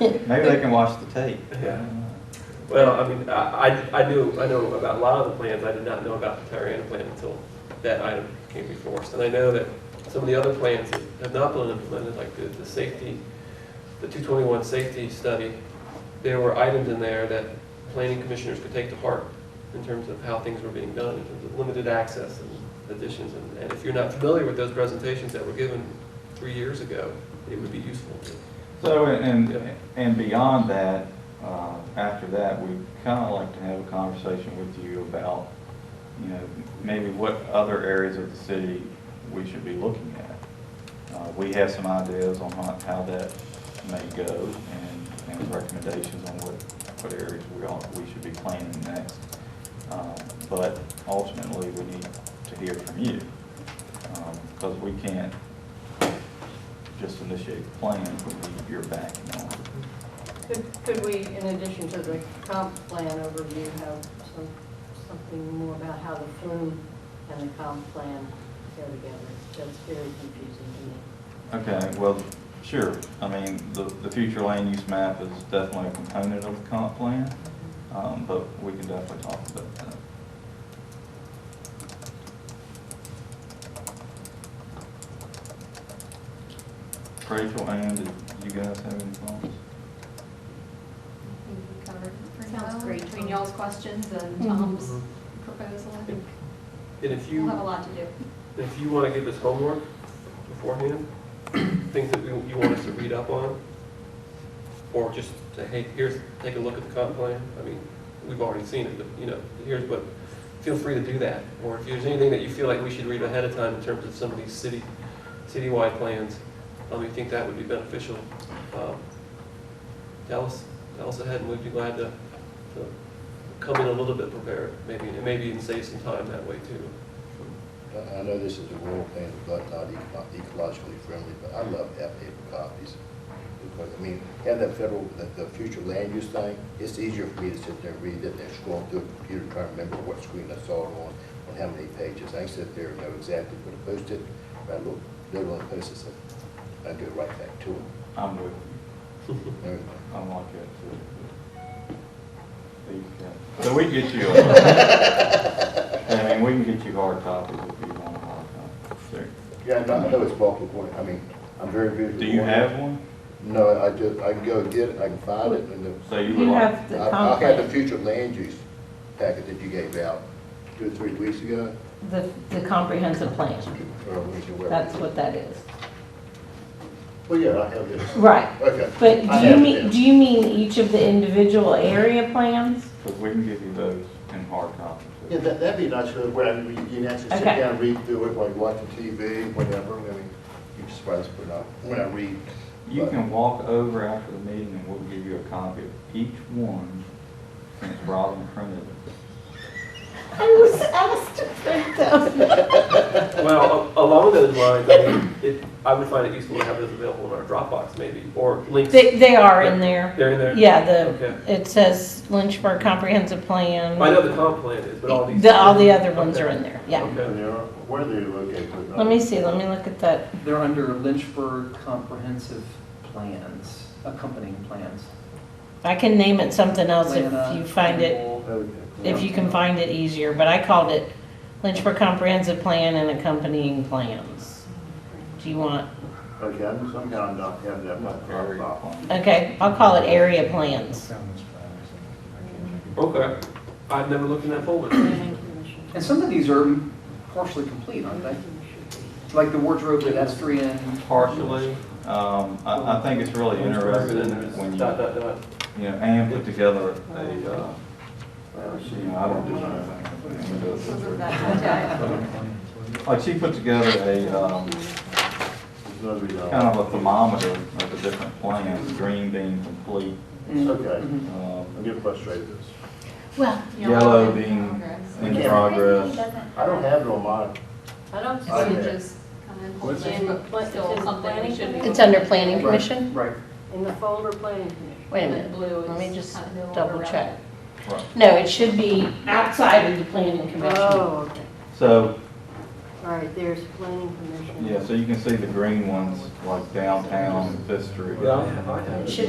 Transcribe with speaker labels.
Speaker 1: Maybe they can watch the tape.
Speaker 2: Yeah. Well, I mean, I, I I knew, I know about a lot of the plans, I did not know about the Tyranna plan until that item came before us. And I know that some of the other plans that have not been implemented, like the, the safety, the 221 safety study, there were items in there that planning commissioners could take to heart in terms of how things were being done, in terms of limited access and additions. And- And if you're not familiar with those presentations that were given three years ago, it would be useful to
Speaker 1: So, and,
Speaker 2: Yeah.
Speaker 1: and beyond that, uh, after that, we'd kind of like to have a conversation with you about, you know, maybe what other areas of the city we should be looking at. Uh, We have some ideas on how, how that may go and, and recommendations on what, what areas we ought, we should be planning next. Um, But ultimately, we need to hear from you, because we can't just initiate the plan when you're back now.
Speaker 3: Could, could we, in addition to the comp plan overview, have some, something more about how the flume and the comp plan go together? That's very confusing to me.
Speaker 1: Okay, well, sure. I mean, the, the future land use map is definitely a component of the comp plan, um, but we can definitely talk about that. Rachel, Ann, did you guys have any thoughts?
Speaker 4: Sounds great, Mm-hmm. between y'all's questions and Tom's proposal, I think
Speaker 2: And if you.
Speaker 4: we'll have a lot to do.
Speaker 2: If you want to give us homework beforehand, things that we- you want us to read up on, or just say, hey, here's, take a look at the comp plan, I mean, we've already seen it, but, you know, here's what, feel free to do that. Or if there's anything that you feel like we should read ahead of time in terms of some of these city, citywide plans, um, you think that would be beneficial, um, tell us, tell us ahead, and we'd be glad to, to come in a little bit prepared, maybe, and maybe even save some time that way too.
Speaker 5: I I know this is a rural plan, but not eco- ecologically friendly, but I love to have paper copies. Because, I mean, have that federal, the, the future land use thing, it's easier for me to sit there and read it than scroll through a computer trying to remember what screen I saw it on, on how many pages. I can sit there and know exactly where to post it, I look, little on post it, I go right back to it.
Speaker 1: I'm with you.
Speaker 5: Everything.
Speaker 1: I'm like that too. but- There you go. So we can get you, a- I mean, we can get you hard copies if you want a hard copy. There.
Speaker 5: Yeah, I know- I know it's multiple point, I mean, I'm very visual.
Speaker 1: Do you have one?
Speaker 5: No, I just, I can go get it, I can find it, and then
Speaker 1: So you would
Speaker 6: You
Speaker 1: like,
Speaker 6: have the
Speaker 5: I I had the
Speaker 6: comp,
Speaker 5: future land use packet that you gave out two or three weeks ago.
Speaker 6: the, the comprehensive plan,
Speaker 5: or a week or whatever.
Speaker 6: that's what that is.
Speaker 5: Well, yeah, I have this.
Speaker 6: Right,
Speaker 5: Okay.
Speaker 6: but
Speaker 5: I
Speaker 6: do you
Speaker 5: have it
Speaker 6: mean,
Speaker 5: then.
Speaker 6: do you mean each of the individual area plans?
Speaker 1: because we can give you those in hard copies.
Speaker 5: Yeah, that, that'd be nice, uh, where I mean, you can actually sit
Speaker 6: Okay.
Speaker 5: down and read through it while you're watching TV, whatever, I mean, you just write this, put it up, when I read.
Speaker 1: You
Speaker 5: but-
Speaker 1: can walk over after the meeting and we'll give you a copy of each one since Robin printed it.
Speaker 6: I was asked to print them.
Speaker 2: Well, a- along those lines, I mean, it, I would find it useful to have those available in our Dropbox maybe, or links.
Speaker 6: They, they are in there.
Speaker 2: They're in there?
Speaker 6: Yeah,
Speaker 2: Okay.
Speaker 6: the, it says Lynchburg Comprehensive Plan.
Speaker 2: I know the comp plan is, but all these.
Speaker 6: The- all the other ones are in there, yeah.
Speaker 5: There
Speaker 2: Okay.
Speaker 5: they are, where they're located. but-
Speaker 6: Let me see, let me look at that.
Speaker 7: They're under Lynchburg comprehensive plans, accompanying plans.
Speaker 6: I can name it something else if
Speaker 7: Atlanta,
Speaker 6: you find it.
Speaker 7: Kimball,
Speaker 5: Okay.
Speaker 6: if you can find it easier, but I called it Lynchburg Comprehensive Plan and accompanying plans. Do you want,
Speaker 5: Okay, I'm somehow not having that. much of a
Speaker 1: Very
Speaker 5: problem.
Speaker 1: fun.
Speaker 6: okay, I'll call it area plans.
Speaker 2: Okay. I've never looked in that folder.
Speaker 3: Planning commission.
Speaker 7: And some of these are partially complete, aren't they? Like the wardrobe pedestrian.
Speaker 1: Partially, um, I, I think it's really interesting when you,
Speaker 2: Dot, dot, dot.
Speaker 1: you know, Ann put together a, uh, you know, I don't do anything. Ann does it. Like she put together a, um,
Speaker 5: There's no reason.
Speaker 1: kind of a thermometer of the different plans, green being complete,
Speaker 7: Mm,
Speaker 5: Okay.
Speaker 7: mhm.
Speaker 1: um,
Speaker 5: I'm getting frustrated with this.
Speaker 4: Well. you know,
Speaker 1: Yellow
Speaker 4: in
Speaker 1: being
Speaker 4: progress.
Speaker 1: in progress.
Speaker 5: I don't have it on mine.
Speaker 3: I don't see
Speaker 4: So you
Speaker 5: Okay.
Speaker 4: just come in,
Speaker 5: What's
Speaker 4: hopefully,
Speaker 3: it?
Speaker 4: but still
Speaker 3: It's in
Speaker 4: something we should be.
Speaker 3: planning?
Speaker 6: It's under planning commission?
Speaker 7: Right,
Speaker 3: in the folder planning commission.
Speaker 6: Wait a
Speaker 4: The
Speaker 6: minute,
Speaker 4: blue
Speaker 6: let me
Speaker 4: is
Speaker 6: just
Speaker 4: kind of no longer
Speaker 6: double check.
Speaker 1: Right.
Speaker 6: No, it should be outside of the planning commission.
Speaker 3: Oh, okay.
Speaker 1: So,
Speaker 3: All right, there's planning commission.
Speaker 1: yeah, so you can see the green ones, like downtown, Fifth Street.
Speaker 2: Yeah, I have, I have. it.
Speaker 6: It should